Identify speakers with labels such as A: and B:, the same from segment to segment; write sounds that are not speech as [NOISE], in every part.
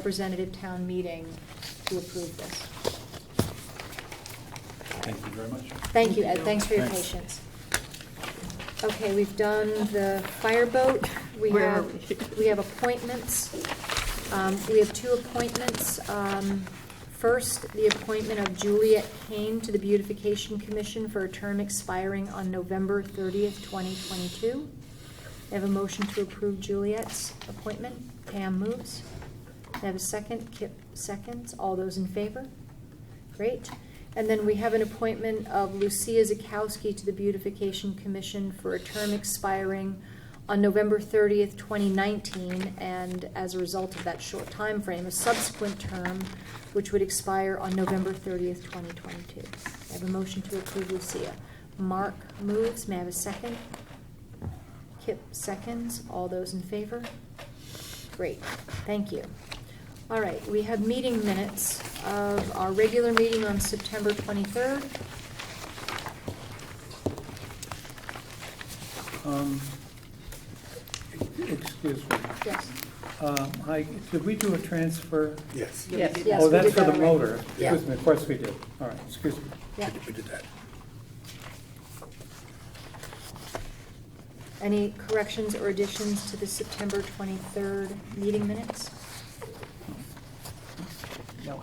A: representative town meeting to approve this.
B: Thank you very much.
A: Thank you, Ed, thanks for your
B: Thanks.
A: patience. Okay, we've done the fireboat, we
C: Where are
A: have,
C: we? [LAUGHS]
A: we have appointments. Um, We have two appointments. Um, First, the appointment of Juliet Kane to the Beautification Commission for a term expiring on November thirtieth, twenty twenty-two. I have a motion to approve Juliet's appointment. Pam moves. I have a second, Kip seconds. All those in favor? Great. And then we have an appointment of Lucia Zakowski to the Beautification Commission for a term expiring on November 30th, 2019, and as a result of that short time frame, a subsequent term which would expire on November 30th, 2022. I have a motion to approve Lucia. Mark moves. May I have a second? Kip seconds. All those in favor? Great, thank you. All right, we have meeting minutes of our regular meeting on September 23rd.
B: Um, Excuse me.
A: Yes,
B: Um, I, did we do a transfer?
D: Yes.
C: Yeah, we did.
A: Yes,
B: Oh,
A: we
B: that's
A: did
B: for
A: that
B: the
A: already.
B: motor.
A: Yeah.
B: Excuse me, of course we did. All right, excuse me.
A: yeah.
D: We did that.
A: Any corrections or additions to the September 23rd meeting minutes?
B: No.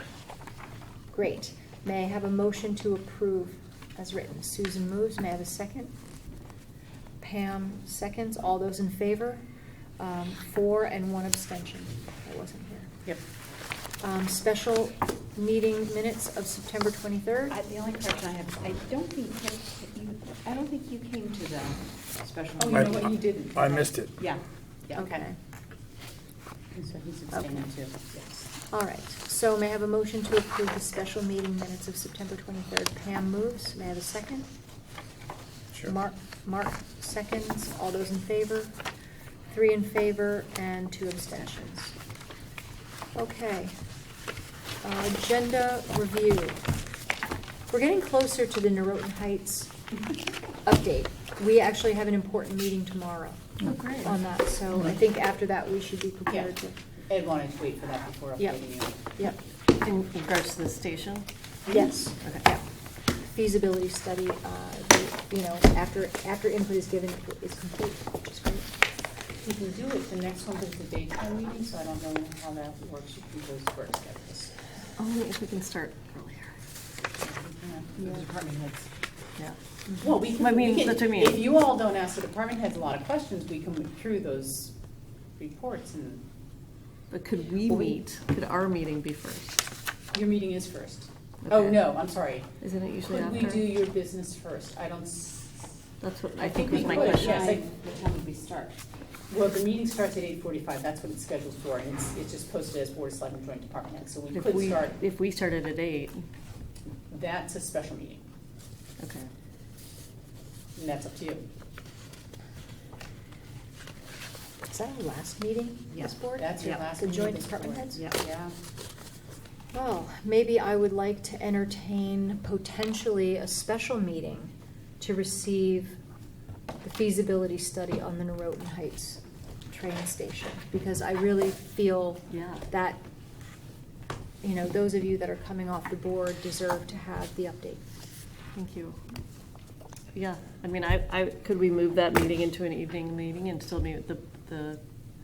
A: Great. May I have a motion to approve as written? Susan moves. May I have a second? Pam seconds. All those in favor? Um, Four and one abstention. I wasn't here.
C: Yep.
A: Um, Special meeting minutes of September 23rd.
E: I- The only correction I have, is I don't think, Ken- you- I don't think you came to the special.
C: Oh, you
E: meeting.
C: know what, you didn't.
D: I missed it.
E: Yeah, yeah.
A: Okay.
E: And So he's abstaining too, yes.
A: All right. So may I have a motion to approve the special meeting minutes of September 23rd? Pam moves. May I have a second?
D: Sure.
A: Mark, Mark seconds. All those in favor? Three in favor and two abstentions. Okay. Uh, Agenda review. We're getting closer to the Norotan Heights update. We actually have an important meeting tomorrow
E: [LAUGHS] Oh, great.
A: on that, so I think after that, we should be
E: Yeah,
A: prepared to.
E: Ed wanted to wait for that before
A: Yep.
E: updating you.
A: Yep,
C: In regards to the station?
E: Mm-hmm.
A: yes,
C: Okay.
A: yeah. Feasibility study, uh, the- you know, after, after input is given, it is complete, which is great.
E: You can do it, the next one is the daytime meeting, so I don't know how that works, you can go first, I guess.
C: Only if we can start earlier.
E: The department heads.
C: Yeah.
E: Well, we can.
C: I
E: we
C: mean,
E: can-
C: that's what I mean.
E: If you all don't ask the department heads a lot of questions, we can look through those reports and,
C: But could we
E: Well, we-
C: meet, could our meeting be first?
E: your meeting is first. Oh,
C: Okay.
E: no, I'm sorry.
C: Isn't it usually after?
E: Could we do your business first? I don't. s-
C: That's what I think was
E: we
C: my
E: could,
C: question.
E: Yes, I- what time would we start? Well, the meeting starts at eight forty-five, that's what it's scheduled for, and it's, it's just posted as Board of Selectmen Joint Department Head, so we
C: If
E: could
C: we,
E: start,
C: if we started at eight,
E: that's a special meeting,
C: okay.
E: and that's up to you.
A: Is that our last meeting, this
C: Yeah,
A: board?
E: That's your
C: Yeah.
E: last
A: The
E: meeting.
A: joint
E: with this
A: department
E: board.
A: heads?
C: Yeah.
E: Yeah.
A: Well, maybe I would like to entertain potentially a special meeting to receive the feasibility study on the Norotan Heights train station, because I really feel
C: Yeah.
A: that, you know, those of you that are coming off the board deserve to have the update.
C: Thank you. Yeah, I mean, I, I, could we move that meeting into an evening meeting and still meet the, the,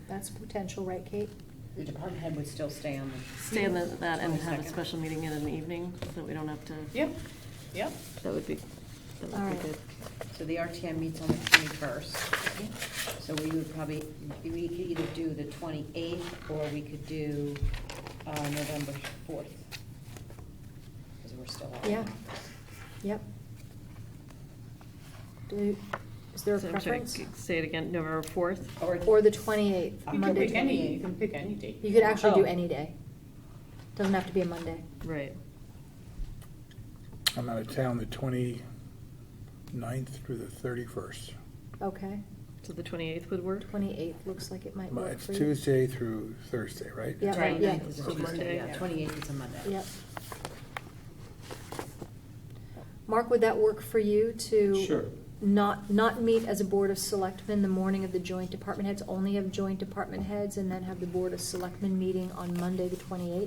A: That's potential, right, Kate?
E: The department head would still stay on the.
C: stay in the- that and have a
E: 22nd.
C: special meeting in the evening so that we don't have to?
E: Yep, yep.
C: That would be, that
A: All
C: would
A: right.
C: be good.
F: So the RTM meets on the twenty-first, so we would probably, we could either do the twenty-eighth, or we could do, uh, November fourth. Because we're still on.
A: Yeah. Yep. Do, is there a
C: So I'm sorry,
A: preference?
C: c- Say it again, November fourth?
A: Or the twenty-eighth,
E: You can
A: Monday
E: pick
A: twenty-eighth?
E: any, you can pick any date.
A: You could actually do
E: Oh.
A: any day. Doesn't have to be a Monday.
C: Right.
D: I'm out of town the 29th through the 31st.
A: Okay,
C: So the twenty-eighth would work?
A: twenty-eighth looks like it might
D: My-
A: work
D: It's
A: for you.
D: Tuesday through Thursday, right?
A: Yeah, right, yeah.
F: 29th is a
C: So Monday,
F: Tuesday,
C: yeah.
F: twenty-eighth is a Monday.
A: Yep. Mark, would that work for you to?
B: Sure.
A: not, not meet as a Board of Selectmen the morning of the joint department heads, only have joint department heads, and then have the Board of Selectmen meeting on Monday, the twenty-eighth?